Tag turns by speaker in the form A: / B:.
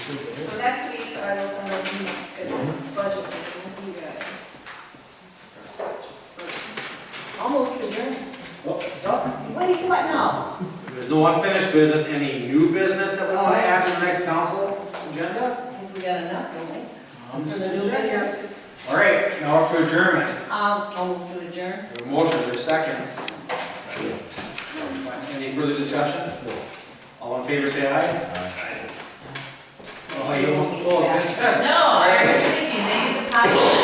A: So next week, I will send out the next schedule, budget meeting with you guys. First.
B: I'll move to adjourn. What do you want now?
C: There's no unfinished business, any new business that we want to add to the next council
B: I
C: agenda?
B: think we got enough, don't we?
C: Um,
B: For the new business.
C: All right, now up to adjournment.
B: Um, I'll move to adjourn.
C: We have a motion, there's a second. Any further discussion? All in favor, say aye. Oh, you almost closed, thanks.
D: No, I was thinking, they need to pop